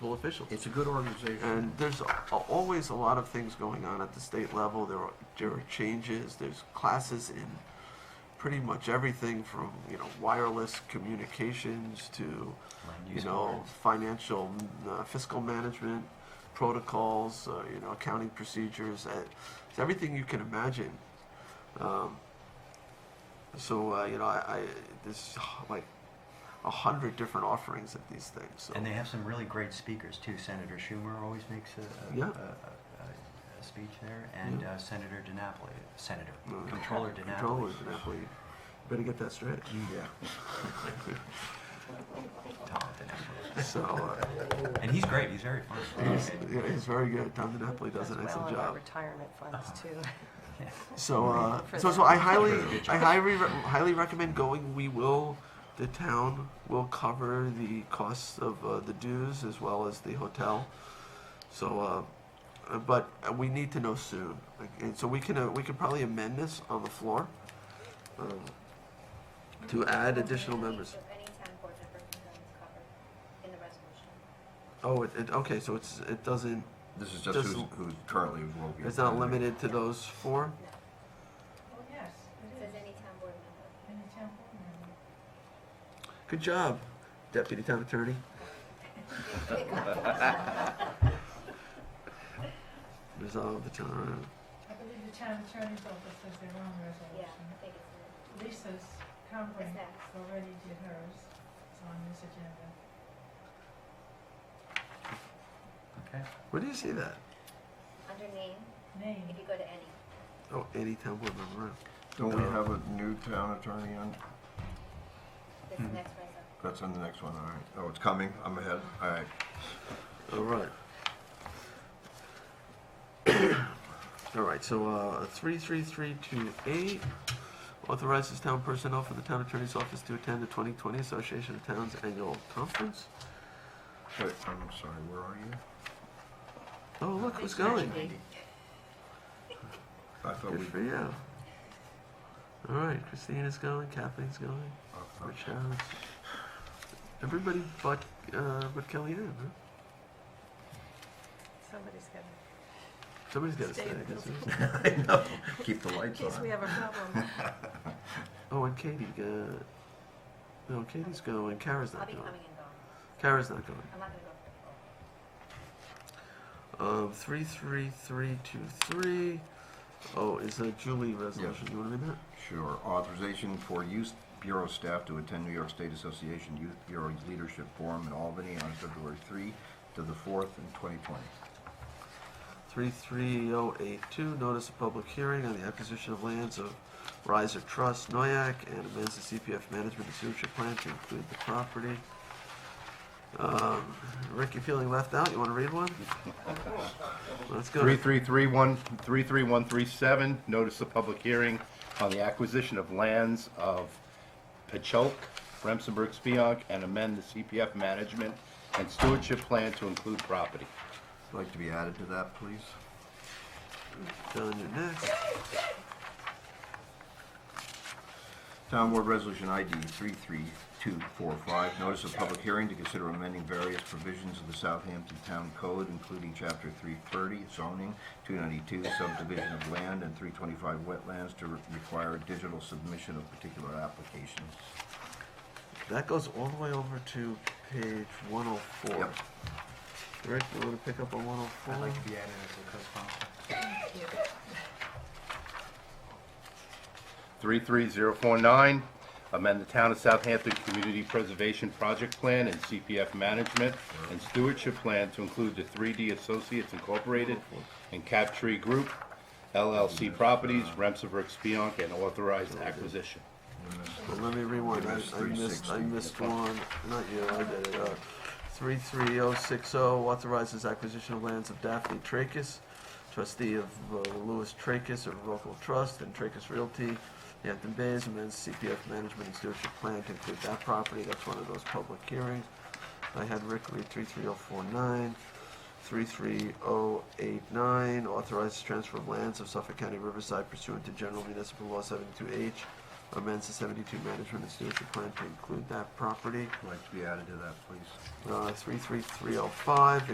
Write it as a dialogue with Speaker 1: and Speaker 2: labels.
Speaker 1: local officials.
Speaker 2: It's a good organization.
Speaker 1: And there's a- always a lot of things going on at the state level. There are, there are changes. There's classes in pretty much everything from you know wireless communications to you
Speaker 3: use
Speaker 1: know
Speaker 3: boards.
Speaker 1: financial uh, fiscal management protocols. Uh, you know accounting procedures. Uh, it's everything you can imagine. Um, so uh, you know I, I there's like a hundred different offerings of these things. So.
Speaker 3: And they have some really great speakers too. Senator Schumer always makes a, a,
Speaker 1: Yeah.
Speaker 3: a, a, a- a speech there, and
Speaker 1: Yeah.
Speaker 3: uh, Senator DiNapoli, Senator
Speaker 1: Uh,
Speaker 3: Controller DiNapoli.
Speaker 1: Controller DiNapoli. Better get that straight.
Speaker 2: Yeah.
Speaker 3: Tom DiNapoli.
Speaker 1: So uh,
Speaker 3: And he's great. He's very fun.
Speaker 1: he's, yeah, he's very good. Tom DiNapoli does an
Speaker 4: As well
Speaker 1: excellent
Speaker 4: in our
Speaker 1: job.
Speaker 4: retirement funds too.
Speaker 1: So uh,
Speaker 4: For
Speaker 1: so
Speaker 4: them.
Speaker 1: so I highly
Speaker 3: Very good
Speaker 1: I
Speaker 3: job.
Speaker 1: highly re- highly recommend going. We will. The town will cover the costs of uh, the dues as well as the hotel. So, uh, uh, but uh, we need to know soon, Like, and so we can uh, we can probably amend this on the floor um, to add additional members.
Speaker 5: Of any town board member who doesn't cover in the resolution.
Speaker 1: Oh, it, it okay. So it's it doesn't.
Speaker 2: This is just
Speaker 1: Just-
Speaker 2: who's, who's currently will be.
Speaker 1: It's not limited to those four.
Speaker 6: Oh, yes,
Speaker 5: It
Speaker 6: it
Speaker 5: says
Speaker 6: is.
Speaker 5: any town board member.
Speaker 6: And the town board member.
Speaker 1: Good job, Deputy Town Attorney. Resolve the town.
Speaker 6: I believe the town attorney's office has their own
Speaker 5: Yeah,
Speaker 6: resolution.
Speaker 5: I think it's, in-
Speaker 6: Lisa's conference
Speaker 5: next.
Speaker 6: already did hers. It's on this agenda.
Speaker 3: Okay.
Speaker 1: Where do you see that?
Speaker 5: under name, if
Speaker 6: Name.
Speaker 5: you go to any.
Speaker 1: Oh, any town board member.
Speaker 7: Don't we have a new town attorney on?
Speaker 5: This
Speaker 1: Hmm.
Speaker 5: is the next resolution.
Speaker 7: That's on the next one, all right. Oh, it's coming, I'm ahead, all right.
Speaker 1: All right. All right. So uh, three three three two eight authorizes town personnel for the town attorney's office to attend the 2020 Association of Towns annual conference.
Speaker 7: Wait, I'm sorry, where are you?
Speaker 1: Oh, look who's going.
Speaker 7: I thought we,
Speaker 1: Good for you. All right, Christina's going, Kathleen's going,
Speaker 7: uh,
Speaker 1: Rich Harris. Everybody but uh, but Kellyanne. Huh?
Speaker 4: Somebody's gonna,
Speaker 1: Somebody's got to stay.
Speaker 4: Stay in the
Speaker 1: doesn't
Speaker 4: building.
Speaker 1: it?
Speaker 7: I know, keep the
Speaker 4: in
Speaker 7: lights
Speaker 4: case we
Speaker 7: on.
Speaker 4: have a problem.
Speaker 1: Oh, and Katie. Uh, no, Katie's going. Kara's
Speaker 5: I'll
Speaker 1: not
Speaker 5: be
Speaker 1: going.
Speaker 5: coming and going.
Speaker 1: Kara's not going.
Speaker 5: I'm not gonna go for the poll.
Speaker 1: Um, three three three two three. Oh, is a Julie resolution. You want to read that?
Speaker 7: Sure, authorization for youth bureau staff to attend New York State Association Youth Bureau Leadership Forum in Albany on February three to the fourth in twenty twenty.
Speaker 1: Three three oh eight two. Notice of public hearing on the acquisition of lands of Riser Trust Noyak and amends the CPF management and stewardship plan to include the property. Um, Rick, you feeling left out? You want to read one? Let's go.
Speaker 8: 3331 33137, notice of public hearing on the acquisition of lands of Pechelk, Remsenburg, Spionk, and amend the CPF management and stewardship plan to include property.
Speaker 7: Would you Like to be added to that, please?
Speaker 1: John, you're next.
Speaker 7: Town Board Resolution ID 33245, notice of public hearing to consider amending various provisions of the Southampton Town Code, including Chapter 330 zoning, 292 subdivision of land, and 325 wetlands to re- require digital submission of particular applications.
Speaker 1: That goes all the way over to page 104.
Speaker 7: Yep.
Speaker 1: Rick, you want to pick up on 104?
Speaker 3: I'd like to be added as a co-sponsor.
Speaker 8: 33049, amend the Town of Southampton Community Preservation Project Plan and CPF Management and Stewardship Plan to include the 3D Associates Incorporated and Cap Tree Group, LLC Properties, Remsenburg, Spionk, and authorized acquisition.
Speaker 1: Well, let me rewind. I,
Speaker 7: That's
Speaker 1: I missed. I
Speaker 7: 360.
Speaker 1: missed one. Not you. I did it. Uh, three three zero six zero authorizes acquisition of lands of Daphne Tracus, trustee of uh, Lewis Tracus of Local Trust and Tracus Realty, Hampton Bays, amends CPF management and stewardship plan to include that property. That's one of those public hearings. I had Rick read three three zero four nine. 33089, authorizes transfer of lands of Suffolk County Riverside pursuant to General Municipal Law 72H amends the 72 management and stewardship plan to include that property.
Speaker 7: I'd like to be added to that, please.
Speaker 1: Uh, 33305,